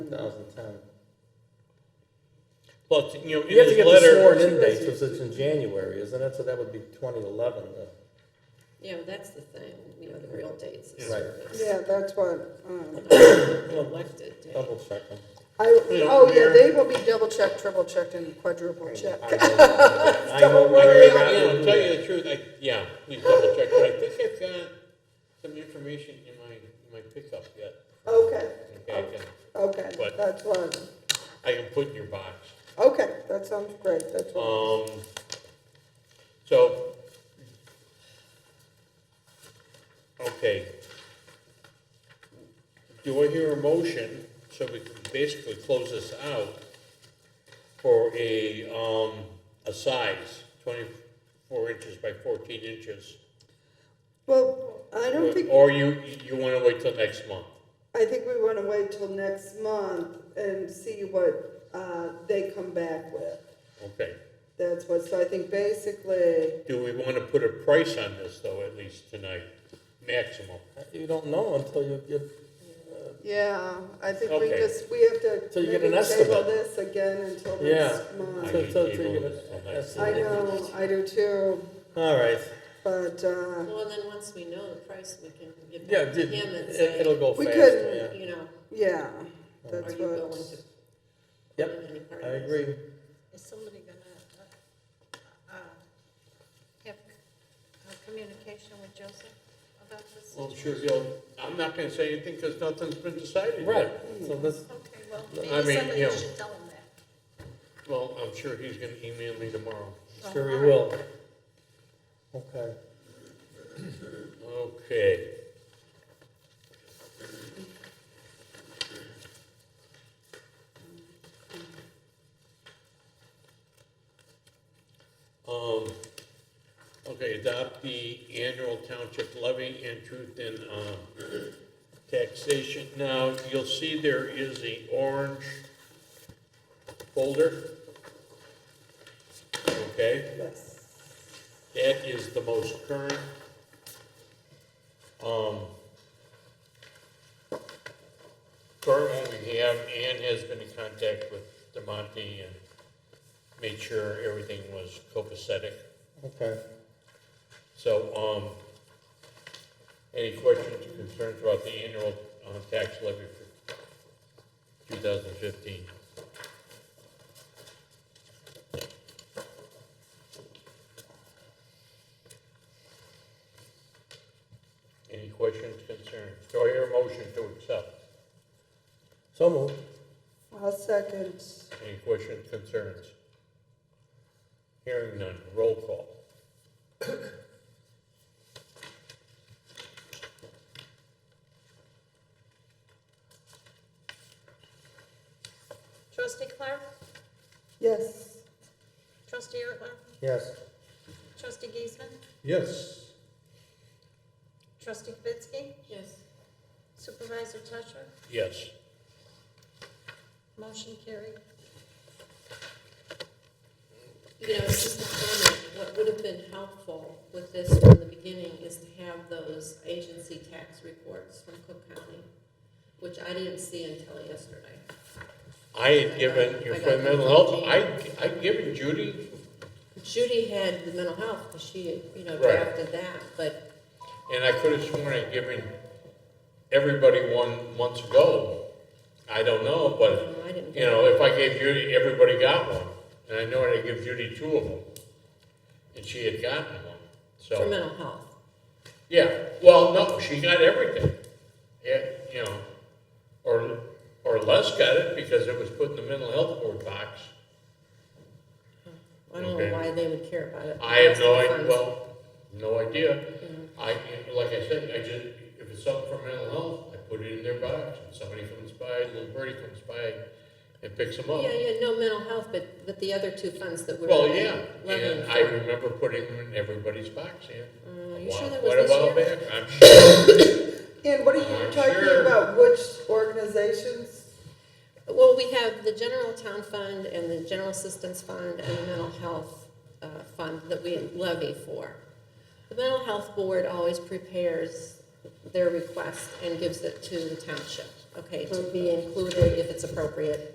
2010. Well, it's- you know, in You have to his get the letter, sworn in date, since it's in January, isn't it? So that would be 2011. uh, You know, that's the thing, you know, the real dates of Right. service. Yeah, that's what, um, Elected date. Double checking. I, oh, yeah, they will be double checked, triple checked, and quadruple checked. I know I, very I, you know, well to do tell you that. the truth, I, yeah, please double check, but I think I've got some information in my, in my pickup yet. Okay, Okay, I can, okay, What? that's what, I can put in your box. okay, that sounds great, that's what. Um, so, okay. Do I hear a motion, so we can basically close this out, for a, um, a size, twenty-four inches by fourteen inches? Well, I don't think, Or you, you wanna wait till next month? I think we wanna wait till next month and see what, uh, they come back with. Okay. That's what, so I think basically, Do we wanna put a price on this, though, at least tonight, maximum? You don't know until you get, uh, yeah, I think we Okay. just, we have to. Till you get maybe an estimate. Table this again until yeah. next month. Till- till- till you table get this till an next I estimate. know, I do too, All right. but, uh, Well, and then once we know the price, we can get Yeah, back to did- him and it- say, it'll go We faster, could- yeah. you know, yeah, are that's you willing what. to? Yep, put in any part I of this? agree. Is somebody gonna, uh, uh, have uh, communication with Joseph about this? Well, I'm sure you'll, I'm not gonna say anything because nothing's been decided yet. Right, so this, Okay, well, I maybe mean, somebody you know. should tell him that. Well, I'm sure he's gonna email me tomorrow. sure Uh-huh. we will. Okay. Okay. Um, okay, adopt the annual township levy and truth in, um, taxation. Now, you'll see there is a orange folder. Okay? Yes. That is the most current. Um, current one we have, Ann has been in contact with DeMonte and made sure everything was copacetic. Okay. So, um, any questions or concerns about the annual, uh, tax levy for two thousand fifteen? Any questions, concerns? Do I hear a motion to accept? So moved. I'll second. Any questions, concerns? Hearing none, roll call. Trustee Clark, Yes. trustee Ertler, Yes. trustee Giesman, Yes. trustee Kibitsky, Yes, supervisor Tusher, Yes. motion carried. you know, it's just a comment, what would have been helpful with this from the beginning is to have those agency tax reports from Cook County, which I didn't see until yesterday. I had given, you for mental health, I, I given Judy, Judy had the mental health, because she, you know, Right. drafted that, but, and I could have sworn I'd given everybody one months ago. I don't know, but, um, I didn't. you know, if I gave Judy, everybody got one. And I know I would give Judy two of them, and she had gotten one, For so. mental health. Yeah, well, no, she got everything. Yeah, you know, or, or Les got it because it was put in the mental health board box. I don't Okay. know why they would care about it. I have no It's idea, funds. well, no idea. I, like I said, I just, if it's something for mental health, I put it in their box, and somebody comes by, little birdie comes by and picks them up. Yeah, yeah, no mental health, but, but the other two funds that we're. Well, yeah, levying and I for. remember putting them in everybody's box, yeah. Uh, A you sure while- that was quite a this while year? back, I'm sure, And what are I'm you talking sure. about, which organizations? Well, we have the general town fund and the general assistance fund and the mental health, uh, fund that we levy for. The mental health board always prepares their request and gives it to the township. Mm-hmm. Okay, to be included if it's appropriate